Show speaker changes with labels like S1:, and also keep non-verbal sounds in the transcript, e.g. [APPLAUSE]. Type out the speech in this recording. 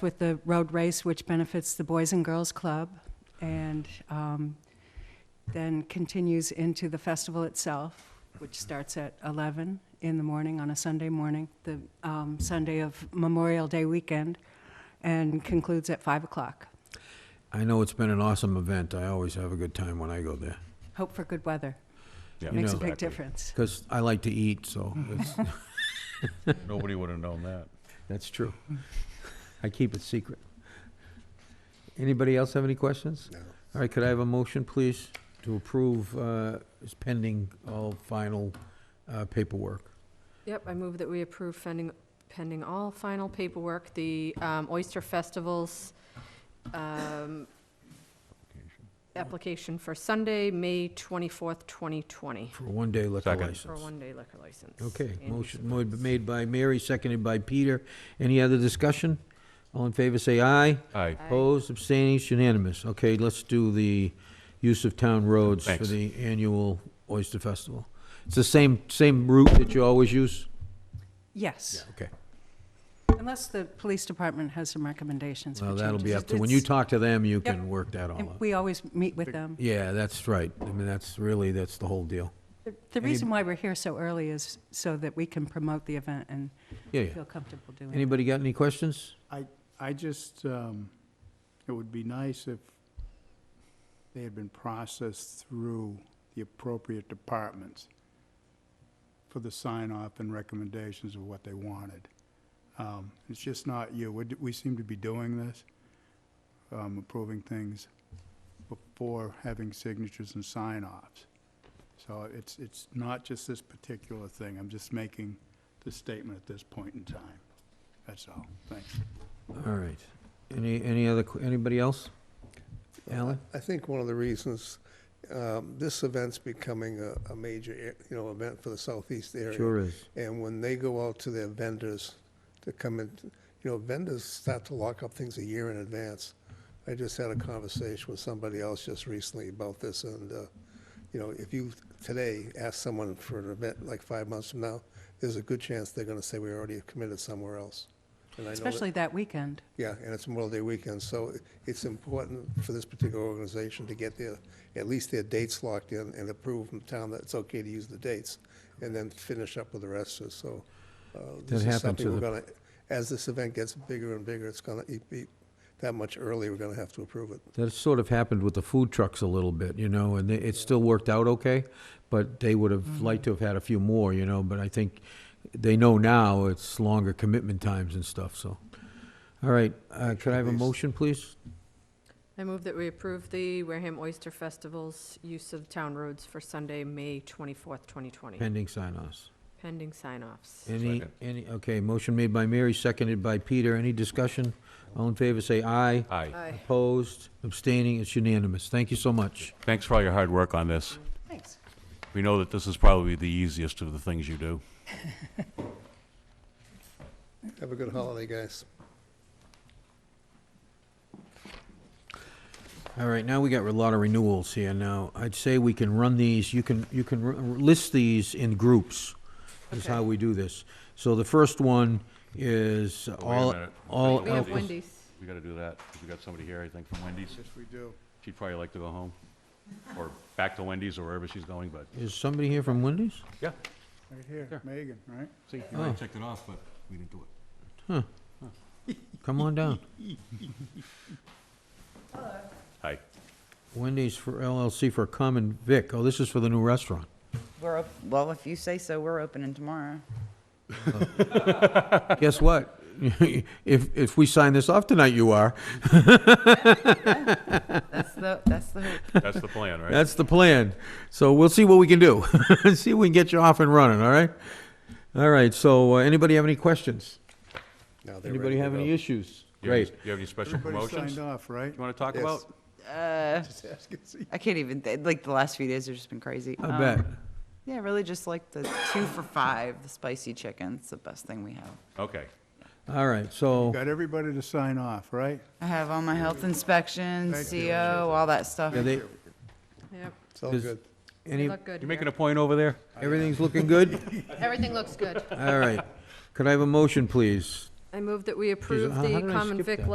S1: with the road race, which benefits the Boys and Girls Club, and um, then continues into the festival itself, which starts at 11 in the morning on a Sunday morning, the um, Sunday of Memorial Day weekend, and concludes at 5 o'clock.
S2: I know it's been an awesome event. I always have a good time when I go there.
S1: Hope for good weather.
S3: Yeah,
S1: Makes a big
S3: exactly.
S1: difference.
S2: Because I like to eat, so it's,
S3: Nobody would have known that.
S2: that's true. I keep it secret. Anybody else have any questions? No. All right, could I have a motion, please, to approve uh, is pending all final uh, paperwork?
S4: Yep, I move that we approve pending, pending all final paperwork, the um, Oyster Festival's um, application for Sunday, May 24th, 2020,
S2: For a one-day liquor
S3: Second.
S2: license.
S4: for a one-day liquor license.
S2: Okay,
S4: and
S2: motion
S4: use of
S2: mo- made by Mary, seconded by Peter. Any other discussion? All in favor, say aye.
S3: Aye.
S4: Aye.
S2: Opposed, abstaining, it's unanimous. Okay, let's do the use of town roads for
S3: Thanks.
S2: the annual Oyster Festival. It's the same, same route that you always use?
S1: Yes,
S2: Okay.
S1: unless the police department has some recommendations for
S2: Well,
S1: changes.
S2: that'll be up to, when you
S1: It's-
S2: talk e- to them, you
S1: Yep.
S2: can work that all
S1: and
S2: out.
S1: We always meet with them.
S2: Yeah, that's right. I mean, that's really, that's the whole deal.
S1: The- The
S2: Any-
S1: reason why we're here so early is so that we can promote the event and
S2: Yeah, yeah.
S1: feel comfortable doing it.
S2: Anybody got any questions?
S5: I just, um, it would be nice if they had been processed through the appropriate departments for the sign-off and recommendations of what they wanted. Um, It's just not you. We d- We seem to be doing this, um, approving things before having signatures and sign-offs. So it's, it's not just this particular thing. I'm just making the statement at this point in time. That's all. Thanks.
S2: All right. Any, any other, que- anybody else? Alan?
S6: I think one of the reasons um, this event's becoming a, a major, e- you know, event for the southeast area.
S2: Sure is.
S6: And when they go out to their vendors to come in, you know, vendors start to lock up things a year in advance. I just had a conversation with somebody else just recently about this, and, uh, you know, if you today ask someone for an event like five months from now, there's a good chance they're gonna say we already committed somewhere else. And I know that-
S1: Especially that weekend.
S6: yeah, and it's Memorial Day weekend, so it- it's important for this particular organization to get their, at least their dates locked in and approve from town that it's okay to use the dates, and then finish up with the rest, of so. uh,
S2: happened
S6: this is
S2: to
S6: something we're
S2: the-
S6: gonna. As this event gets bigger and bigger, it's gonna it be, that much earlier, we're gonna have to approve it.
S2: That sort of happened with the food trucks a little bit, you know, and it- it still worked out okay, but they would have liked to have had a few more, you know, but I think they know now it's longer commitment times and stuff, so. All right, uh, could I have a
S6: At least.
S2: motion, please?
S4: I move that we approve the Wareham Oyster Festival's use of town roads for Sunday, May 24th, 2020,
S2: Pending sign-offs.
S4: pending sign-offs.
S2: Any,
S3: Second.
S2: any, okay, motion made by Mary, seconded by Peter. Any discussion? All in favor, say aye.
S3: Aye.
S4: Aye.
S2: Opposed, abstaining, it's unanimous. Thank you so much.
S3: Thanks for all your hard work on this.
S1: Thanks.
S3: We know that this is probably the easiest of the things you do.
S6: Have a good holiday, guys.
S2: All right, now we got a lot of renewals here now. I'd say we can run these, you can, you can r- list these in groups, is how we do this. So the first one is all,
S3: minute.
S2: all.
S3: Wait,
S4: We have
S3: Alcohol.
S4: Wendy's.
S3: We gotta do that, 'cause we got somebody here, I think, from Wendy's.
S6: we do.
S3: She'd probably like to go home, or back to Wendy's or wherever she's going, but,
S2: Is somebody here from Wendy's?
S3: yeah.
S5: Right here, Megan, right?
S3: See, you
S2: Oh.
S3: already checked it off, but we didn't do it.
S2: Come on
S4: [LAUGHS]
S2: down.
S3: Hi.
S2: Wendy's for LLC for Common Vic. Oh, this is for the new restaurant.
S7: We're, op- well, if you say so, we're opening tomorrow.
S2: Guess what? [LAUGHS] If, if we sign this off tonight, you are.
S7: That's the, that's the hope.
S3: That's the plan,
S2: [LAUGHS]
S3: right?
S2: That's the plan. So we'll see what we can do. [LAUGHS] See if we can get you off and running, all right? All right, so uh, anybody have any questions? Anybody have any issues?
S3: You have any-
S2: Great.
S3: You have any special
S5: Everybody
S3: promotions
S5: signed
S3: you
S5: off,
S3: [LAUGHS]
S5: right?
S3: wanna talk
S6: Yes.
S3: about?
S7: Uh,
S6: Just ask and see.
S7: I can't even, th- like, the last few days have just been crazy.
S2: I
S7: Um,
S2: bet.
S7: Yeah, really just like the two for five, the spicy chicken's the best thing we have.
S3: Okay.
S2: All right, so,
S5: Got everybody to sign off, right?
S7: I have all my health inspections,
S5: Thank you.
S7: CO, all that stuff.
S2: yeah, they,
S4: Yep,
S6: It's all
S2: Is-
S6: good.
S4: they
S2: any,
S4: look good here.
S3: You making a point over there?
S2: everything's looking good?
S4: [LAUGHS] Everything looks good.
S2: All right. Could I have a motion, please?
S4: I move that we approve
S2: how- how
S4: the
S2: did I
S4: common
S2: skip
S4: vic
S2: that?